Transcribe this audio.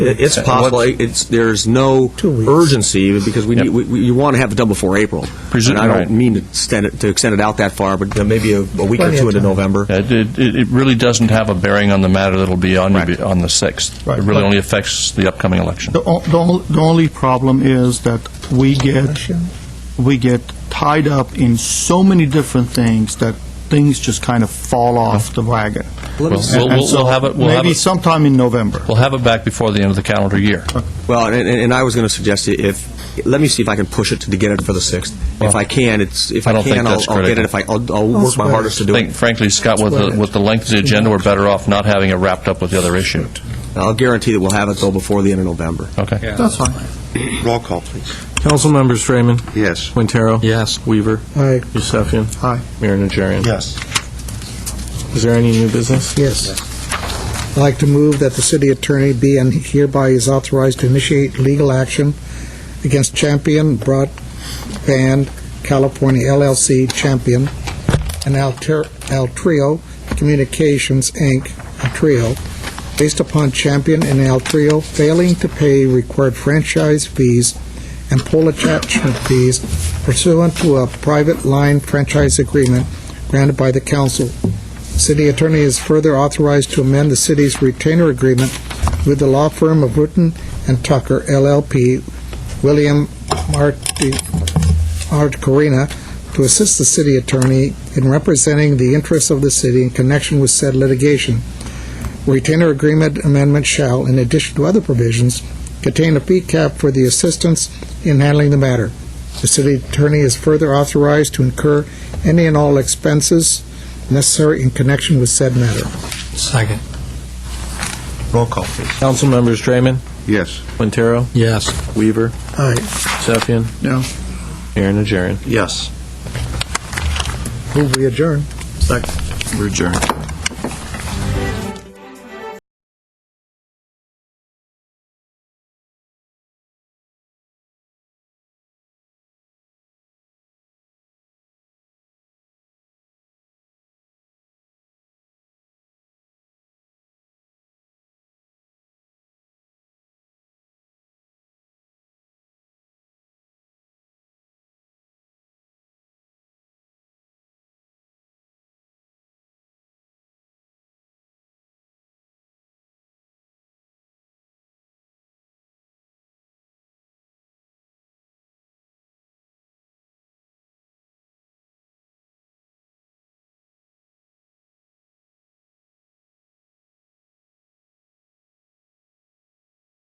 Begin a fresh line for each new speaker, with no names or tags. It- It's
Uh,
possible.
what's-
It's, there's no
weeks.
urgency because we, need- we- we- you want to have it done before April.
Presu-
And I
right.
don't mean to extend it, to extend it out that far, but uh, maybe a a week or
Plenty of
two into
time.
November.
It, it- it it really doesn't have a bearing on the matter that'll be on, your-
Right.
on the 6th.
Right.
It really
But-
only affects the upcoming election.
The, o- the, only, the only problem is that we get we get tied up in so many different things that things just kind of fall off the wagon.
Let me
Well,
see.
we'll-
And
we'll-
so
we'll have it- we'll have
maybe
it-
sometime in November.
We'll have it back before the end of the calendar year.
Well, and, and and I was going to suggest i- if, let me see if I can push it to get it for the 6th. If
Well,
I can, it's, if
I
I
don't think
can, I'll
that's
I'll get
critical.
it. If I, I'll I'll work my
swear.
hardest to
I
do
think,
it.
frankly, Scott, with the, with the length of the agenda, we're better off not having it wrapped up with the other issue.
I'll guarantee that we'll have it though before the end of November.
Okay.
That's fine.
Roll call, please.
Council members Freeman.
Yes.
Quintero. Yes. Weaver.
Aye.
Yusefian.
Aye.
Mayor Najarian.
Yes.
Is there any new business?
Yes. I'd like to move that the city attorney be and hereby is authorized to initiate legal action against Champion Broadband California LLC, Champion, and Alter- Altrio Communications, Inc., Altrio, based upon Champion and Altrio failing to pay required franchise fees and poll attachment fees pursuant to a private line franchise agreement granted by the council. City attorney is further authorized to amend the city's retainer agreement with the law firm of Wooten and Tucker LLP, William Marti- Art Corina, to assist the city attorney in representing the interests of the city in connection with said litigation. Retainer agreement amendment shall, in addition to other provisions, contain a fee cap for the assistance in handling the matter. The city attorney is further authorized to incur any and all expenses necessary in connection with said matter.
Second.
Roll call, please.
Council members Freeman.
Yes.
Quintero. Yes. Weaver.
Aye.
Yusefian.
No.
Mayor Najarian.
Yes.
Move we adjourn.
Second. We're adjourned.